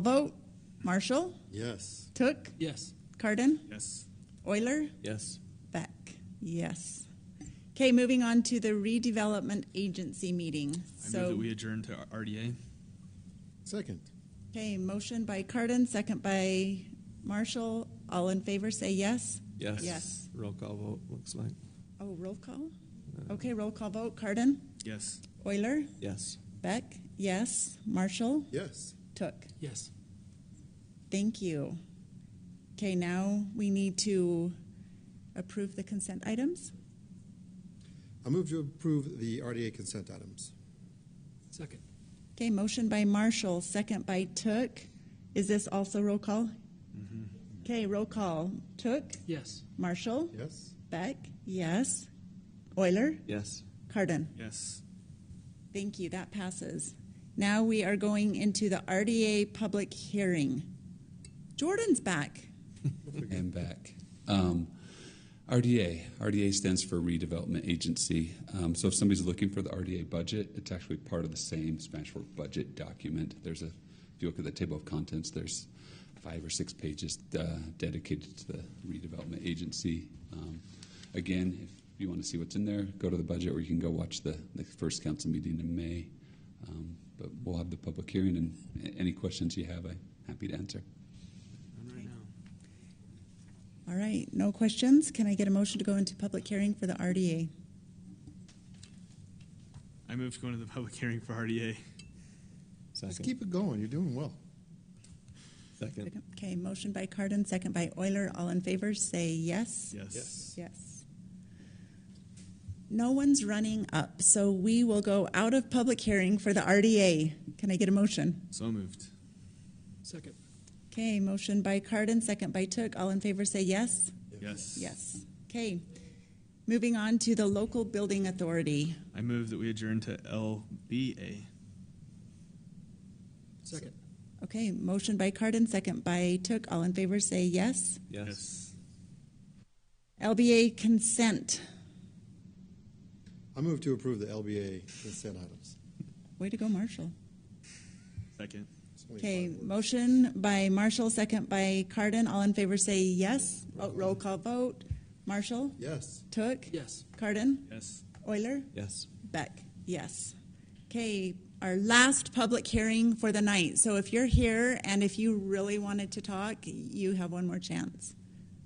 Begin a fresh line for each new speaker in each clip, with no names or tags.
Vote Marshall,
Yes.
Took,
Yes.
Cardin,
Yes.
Euler,
Yes.
Beck. Yes. Okay, moving on to the redevelopment agency meeting.
I move that
So,
we adjourn to RDA.
Second.
okay, motion by Cardin, second by Marshall. All in favor, say yes.
Yes.
Yes.
Roll call vote, looks like.
Oh, roll call?
Uh.
Okay, roll call vote. Cardin,
Yes.
Euler,
Yes.
Beck, yes. Marshall,
Yes.
Took.
Yes.
Thank you. Okay, now we need to approve the consent items.
I move to approve the RDA consent items.
Second.
Okay, motion by Marshall, second by Took. Is this also roll call? Okay, roll call. Took,
Yes.
Marshall,
Yes.
Beck, yes. Euler,
Yes.
Cardin.
Yes.
Thank you, that passes. Now we are going into the RDA public hearing. Jordan's back.
and back. Um, RDA, RDA stands for Redevelopment Agency. Um, so if somebody's looking for the RDA budget, it's actually part of the same Spanish for budget document. There's a, if you look at the table of contents, there's five or six pages uh, dedicated to the redevelopment agency. Um, again, if you want to see what's in there, go to the budget, or you can go watch the, the first council meeting in May. Um, but we'll have the public hearing, and a- any questions you have, I'm happy to answer.
On right now.
All right, no questions. Can I get a motion to go into public hearing for the RDA?
I move to go into the public hearing for RDA.
Just
Second.
keep it going. You're doing well.
Second.
Okay, motion by Cardin, second by Euler. All in favor, say yes.
Yes.
Yes.
Yes. No one's running up, so we will go out of public hearing for the RDA. Can I get a motion?
So moved. Second.
Okay, motion by Cardin, second by Took. All in favor say yes?
Yes.
Yes. Okay. Moving on to the local building authority.
I move that we adjourn to LBA. Second.
Okay, motion by Cardin, second by Took. All in favor say yes?
Yes.
LBA consent.
I move to approve the LBA consent items.
Way to go, Marshall.
Second.
It's only
Okay,
five words.
motion by Marshall, second by Cardin. All in favor say yes. Oh, Roll call vote. Marshall?
Yes.
Took?
Yes.
Cardin?
Yes.
Euler?
Yes.
Beck? Yes. Okay, our last public hearing for the night. So if you're here and if you really wanted to talk, you have one more chance.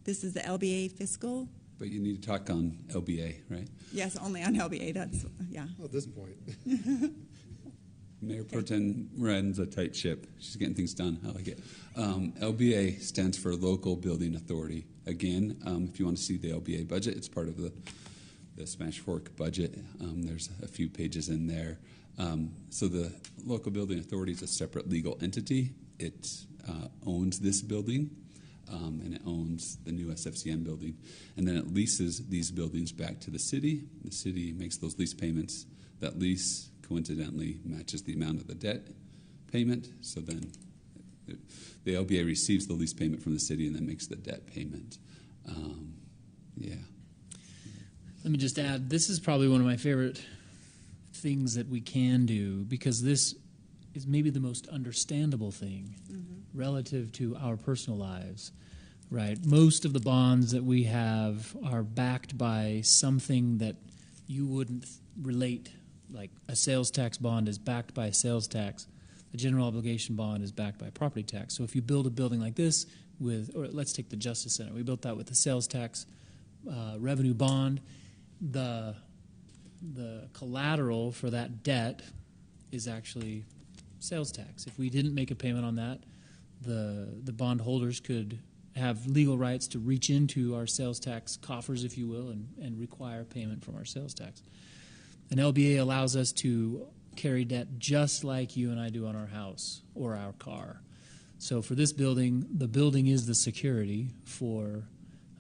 This is the LBA fiscal?
But you need to talk on LBA, right?
Yes, only on LBA, that's, yeah.
At this point.
Mayor Proton runs a tight ship. She's getting things done. I like it. Um, LBA stands for Local Building Authority. Again, um, if you want to see the LBA budget, it's part of the, the Smash Fork budget. Um, there's a few pages in there. Um, so the Local Building Authority is a separate legal entity. It uh, owns this building um, and it owns the new SFCM building. And then it leases these buildings back to the city. The city makes those lease payments. That lease coincidentally matches the amount of the debt payment. So then it- the LBA receives the lease payment from the city and then makes the debt payment. Um, yeah.
Let me just add this is probably one of my favorite things that we can do because this is maybe the most understandable thing relative to our personal lives, right? Most of the bonds that we have are backed by something that you wouldn't th- relate, like a sales tax bond is backed by sales tax. The general obligation bond is backed by property tax. So if you build a building like this with, or let's take the Justice Center, we built that with the sales tax uh, revenue bond, the the collateral for that debt is actually sales tax. If we didn't make a payment on that, the the bondholders could have legal rights to reach into our sales tax coffers, if you will, and, and require payment from our sales tax. An LBA allows us to carry debt just like you and I do on our house or our car. So for this building, the building is the security for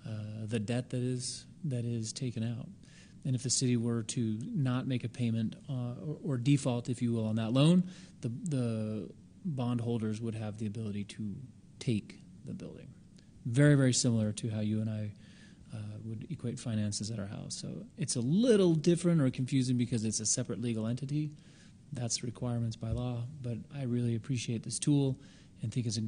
uh, the debt that is that is taken out. And if the city were to not make a payment uh, or, or default, if you will, on that loan, the the bondholders would have the ability to take the building. Very very similar to how you and I uh, would equate finances at our house. So it's a little different or confusing because it's a separate legal entity. That's requirements by law. But I really appreciate this tool and think it's a